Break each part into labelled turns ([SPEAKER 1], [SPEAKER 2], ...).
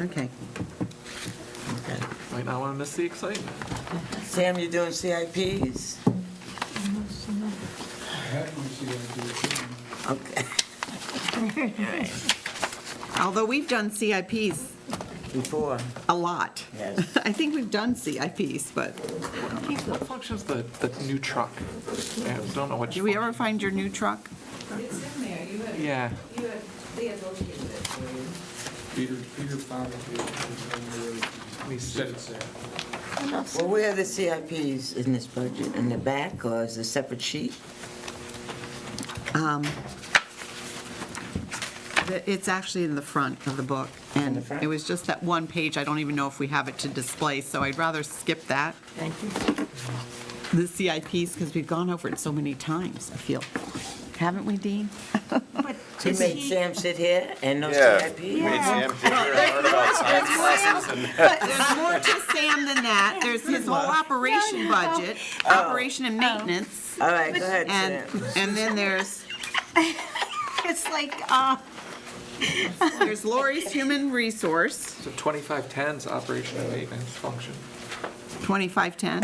[SPEAKER 1] Okay.
[SPEAKER 2] Okay.
[SPEAKER 3] Might not want to miss the excitement.
[SPEAKER 2] Sam, you doing CIPs? Okay.
[SPEAKER 1] Although we've done CIPs
[SPEAKER 2] Before,
[SPEAKER 1] a lot.
[SPEAKER 2] Yes.
[SPEAKER 1] I think we've done CIPs, but
[SPEAKER 3] What function's the, the new truck? I don't know what.
[SPEAKER 1] did we ever find your new truck?
[SPEAKER 4] It's in there, you had, you
[SPEAKER 3] Yeah.
[SPEAKER 4] had, they had located it for you.
[SPEAKER 5] Peter, Peter found it. He said it's there.
[SPEAKER 2] well, where are the CIPs in this budget? In the back or is it a separate sheet?
[SPEAKER 1] Um, the- It's actually in the front of the book, and
[SPEAKER 2] the front?
[SPEAKER 1] it was just that one page, I don't even know if we have it to display, so I'd rather skip that. Thank you. The CIPs, because we've gone over it so many times, I feel. Haven't we, Dean?
[SPEAKER 6] But
[SPEAKER 2] You
[SPEAKER 6] is
[SPEAKER 2] made
[SPEAKER 6] he-
[SPEAKER 2] Sam sit here and no
[SPEAKER 7] Yeah.
[SPEAKER 2] CIPs?
[SPEAKER 6] Yeah.
[SPEAKER 1] But there's more to Sam than that. There's his whole operation budget, operation and maintenance,
[SPEAKER 2] All right, go ahead,
[SPEAKER 1] and,
[SPEAKER 2] Sam.
[SPEAKER 1] and then there's,
[SPEAKER 6] It's like, uh,
[SPEAKER 1] there's Lori's human resource,
[SPEAKER 3] So 2510's operation and maintenance function.
[SPEAKER 1] 2510.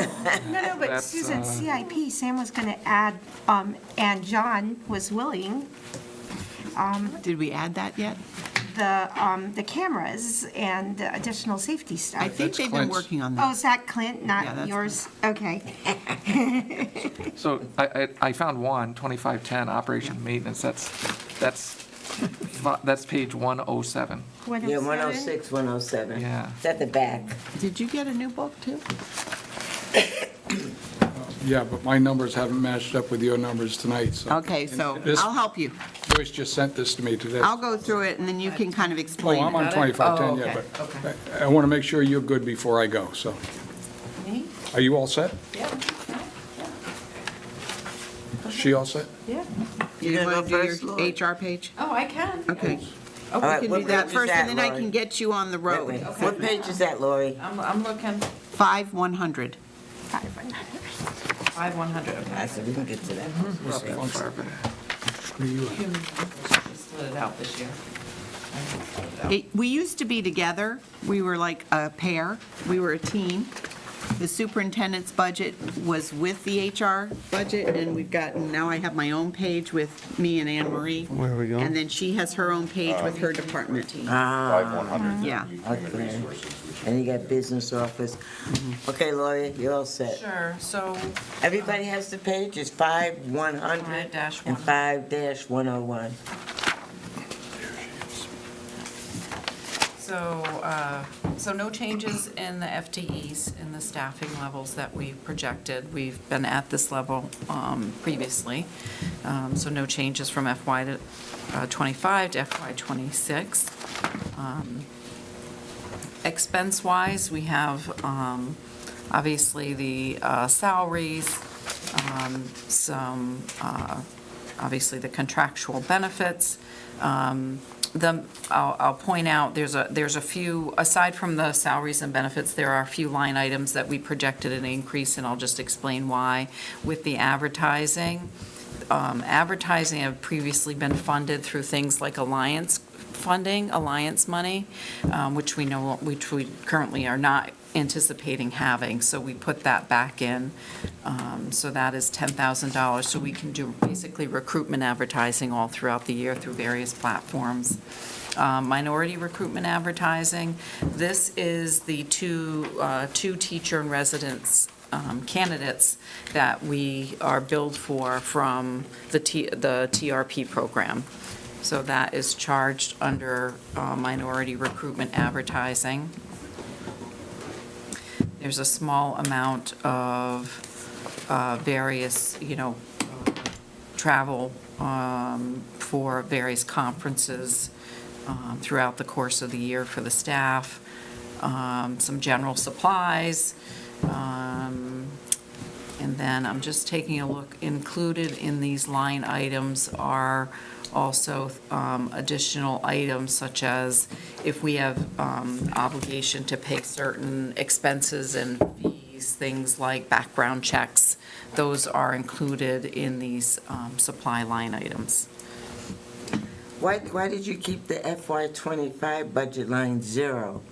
[SPEAKER 6] no, no, but
[SPEAKER 3] That's, uh,
[SPEAKER 6] Susan, CIP, Sam was going to add, um, and John was willing,
[SPEAKER 1] Did we add that yet?
[SPEAKER 6] the, um, the cameras and the additional safety
[SPEAKER 1] I
[SPEAKER 6] stuff.
[SPEAKER 1] think they've been
[SPEAKER 5] Clint's.
[SPEAKER 1] working on
[SPEAKER 6] Oh,
[SPEAKER 1] that.
[SPEAKER 6] is that Clint,
[SPEAKER 1] Yeah,
[SPEAKER 6] not
[SPEAKER 1] that's
[SPEAKER 6] yours? Okay.
[SPEAKER 3] So I, I, I found one, 2510, operation and maintenance, that's, that's, fi- that's page 107.
[SPEAKER 2] Yeah, 106, 107.
[SPEAKER 3] Yeah.
[SPEAKER 2] It's at the back.
[SPEAKER 1] Did you get a new book, too?
[SPEAKER 5] Yeah, but my numbers haven't matched up with your numbers tonight, so.
[SPEAKER 1] Okay, so
[SPEAKER 5] This-
[SPEAKER 1] I'll help you.
[SPEAKER 5] Joyce just sent this to me today.
[SPEAKER 1] I'll go through it, and then you can kind of
[SPEAKER 5] Oh,
[SPEAKER 1] explain
[SPEAKER 5] I'm
[SPEAKER 1] it.
[SPEAKER 5] on 2510, yeah, but I- I want to make sure you're good before I go, so. Are you all set? She all set?
[SPEAKER 4] Yeah.
[SPEAKER 1] You
[SPEAKER 2] You're gonna
[SPEAKER 1] want
[SPEAKER 2] go
[SPEAKER 1] to
[SPEAKER 2] first,
[SPEAKER 1] do your
[SPEAKER 2] Lori?
[SPEAKER 1] HR page?
[SPEAKER 4] Oh, I can.
[SPEAKER 1] Okay.
[SPEAKER 2] All
[SPEAKER 1] We
[SPEAKER 2] right,
[SPEAKER 1] can
[SPEAKER 2] what
[SPEAKER 1] do
[SPEAKER 2] page
[SPEAKER 1] that
[SPEAKER 2] is
[SPEAKER 1] first, and then I
[SPEAKER 2] Lori?
[SPEAKER 1] can get you on the
[SPEAKER 2] Wait a minute.
[SPEAKER 1] road.
[SPEAKER 2] What page is that, Lori?
[SPEAKER 4] I'm, I'm looking,
[SPEAKER 1] Five 100.
[SPEAKER 6] Five, one hundred.
[SPEAKER 4] five one hundred,
[SPEAKER 2] I
[SPEAKER 4] okay.
[SPEAKER 2] said, we can get to Mm-hmm.
[SPEAKER 3] Not that
[SPEAKER 2] that.
[SPEAKER 3] far, but-
[SPEAKER 4] Human resources split it out this year. I split it out.
[SPEAKER 1] It- We used to be together. We were like a pair. We were a team. The superintendent's budget was with the HR budget, and we've gotten, now I have my own page with me and Anne Marie. Where are we going? And then she has her own page with her department.
[SPEAKER 7] Uh, Five one hundred.
[SPEAKER 1] Yeah.
[SPEAKER 2] Okay. And you got business office. Okay, Lori, you're all set.
[SPEAKER 4] Sure, so
[SPEAKER 2] Everybody has the page, it's five one hundred and
[SPEAKER 4] 5-100.
[SPEAKER 2] five dash one oh one.
[SPEAKER 4] So, uh, so no changes in the FTEs, in the staffing levels that we projected. We've been at this level um, previously, Um, so no changes from FY to, uh, '25 to FY '26. Um, Expense-wise, we have um, obviously the uh, salaries, um, some, uh, obviously the contractual benefits. Um, The, I'll, I'll point out, there's a, there's a few, aside from the salaries and benefits, there are a few line items that we projected an increase, and I'll just explain why. With the advertising, um, advertising have previously been funded through things like alliance funding, alliance money, um, which we know, which we currently are not anticipating having, so we put that back in. Um, So that is $10,000, so we can do basically recruitment advertising all throughout the year through various platforms. Uh, Minority recruitment advertising, this is the two, uh, two teacher and residence um, candidates that we are billed for from the T- the TRP program. So that is charged under uh, minority recruitment advertising. There's a small amount of uh, various, you know, travel um, for various conferences um, throughout the course of the year for the staff, um, some general supplies, um, and then I'm just taking a look, included in these line items are also um, additional items such as if we have um, obligation to pay certain expenses and fees, things like background checks, those are included in these um, supply line items.
[SPEAKER 2] Why, why did you keep the FY twenty-five budget line zero?